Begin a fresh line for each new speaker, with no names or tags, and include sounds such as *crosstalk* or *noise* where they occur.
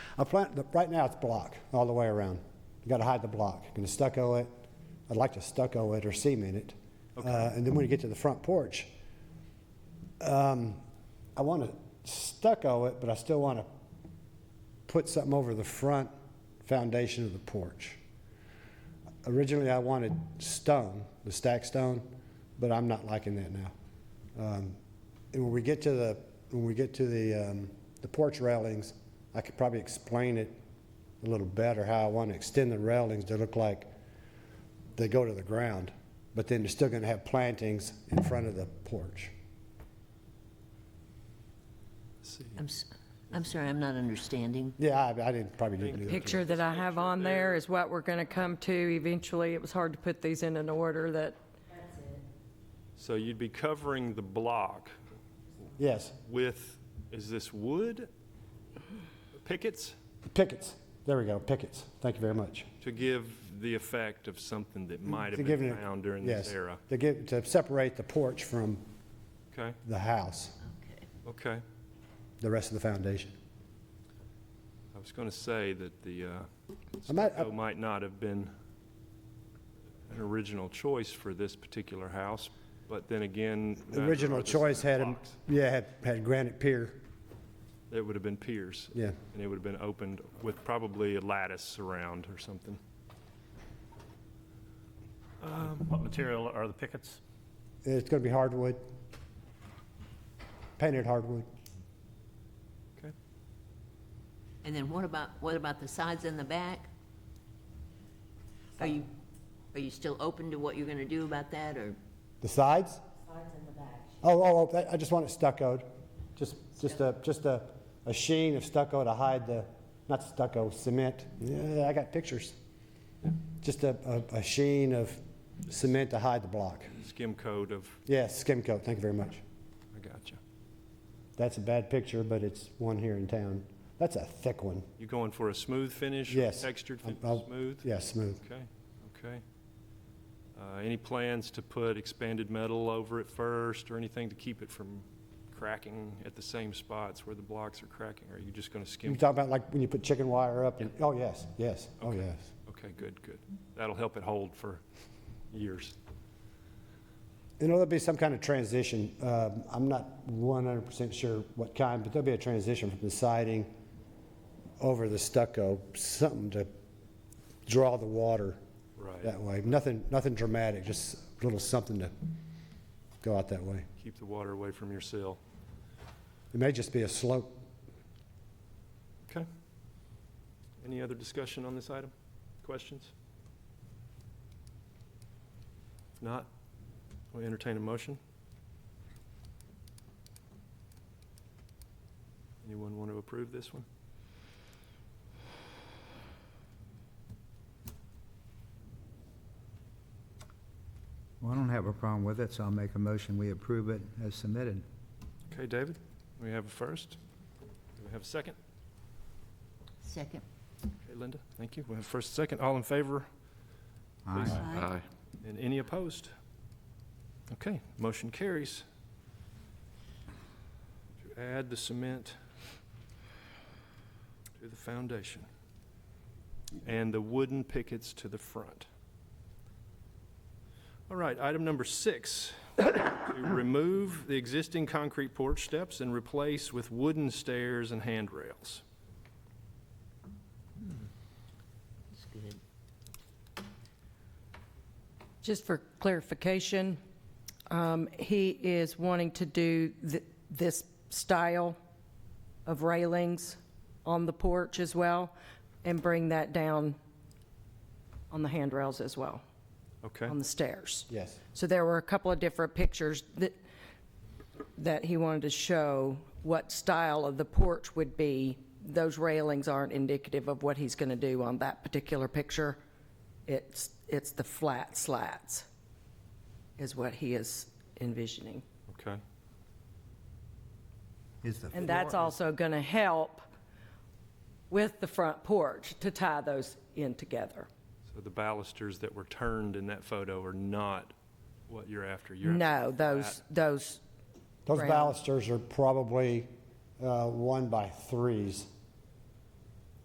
I plant, the- right now it's block all the way around. You gotta hide the block. Gonna stucco it. I'd like to stucco it or cement it. Uh, and then when you get to the front porch, um, I wanna stucco it, but I still wanna put something over the front foundation of the porch. Originally, I wanted stone, the stack stone, but I'm not liking that now. Um, and when we get to the when we get to the um, the porch railings, I could probably explain it a little better how I want to extend the railings to look like they go to the ground, but then they're still going to have plantings in front of the porch.
I'm, s- I'm sorry, I'm not understanding.
Yeah, I, I didn't probably didn't do that.
Picture that I have on there is what we're going to come to eventually. It was hard to put these in an order that,
So you'd be covering the block
Yes,
with, is this wood pickets
pickets. There we go, pickets. Thank you very much.
to give the effect of something that might
To
have
give
been
it-
found during this
yes,
era?
To give, to separate the porch from
Okay,
the house,
okay.
the rest of the foundation.
I was going to say that the uh,
I might-
stucco might not have been an original choice for this particular house, but then again.
The
neither
original
are the
choice had, a-
blocks.
yeah, had, had granite pier,
It would have been piers.
Yeah.
And it would have been opened with probably a lattice around or something.
What material are the pickets?
it's gonna be hardwood, painted hardwood.
Okay.
And then what about, what about the sides and the back? Are you, are you still open to what you're gonna do about that, or?
The sides? Oh, oh, oh, that- I just want it stuccoed, just, just a, just a, a sheen of stucco to hide the, not stucco, cement. Yeah, I got pictures. Just a, a- a sheen of cement to hide the block.
Skim coat of,
Yeah, skim coat, thank you very much.
I gotcha.
That's a bad picture, but it's one here in town. That's a thick one.
You going for a smooth finish?
Yes.
Textured, fin-
I'll- I'll-
smooth?
Yeah, smooth.
Okay, okay. Uh, Any plans to put expanded metal over it first, or anything to keep it from cracking at the same spots where the blocks are cracking? Or are you just going to
You
skim?
talking about like when you put chicken wire up and, oh, yes, yes, oh, yes.
Okay, good, good. That'll help it hold for years.
And there'll be some kind of transition. Um, I'm not 100% sure what kind, but there'll be a transition from the siding over the stucco, something to draw the water
Right.
that way. Nothing, nothing dramatic, just a little something to go out that way.
Keep the water away from your sill.
It may just be a slope.
Okay. Any other discussion on this item? Questions? If not, we entertain a motion. Anyone want to approve this one?
Well, I don't have a problem with it, so I'll make a motion, we approve it as submitted.
Okay, David, we have a first. Do we have a second?
Second.
Okay, Linda, thank you. We have first, second. All in favor
Aye.
and any opposed? Okay, motion carries. To add the cement to the foundation and the wooden pickets to the front. All right, item number six, to *coughs* remove the existing concrete porch steps and replace with wooden stairs and handrails.
That's good.
just for clarification, um, he is wanting to do th- this style of railings on the porch as well and bring that down on the handrails as well,
Okay,
on the stairs.
Yes.
So there were a couple of different pictures that, that he wanted to show what style of the porch would be. Those railings aren't indicative of what he's going to do on that particular picture. It's, it's the flat slats is what he is envisioning.
okay.
Is the
And that's also going to help with the front porch to tie those in together.
So the balusters that were turned in that photo are not what you're after? You're after
No, those, those,
Those
Round.
balusters are probably uh, one by threes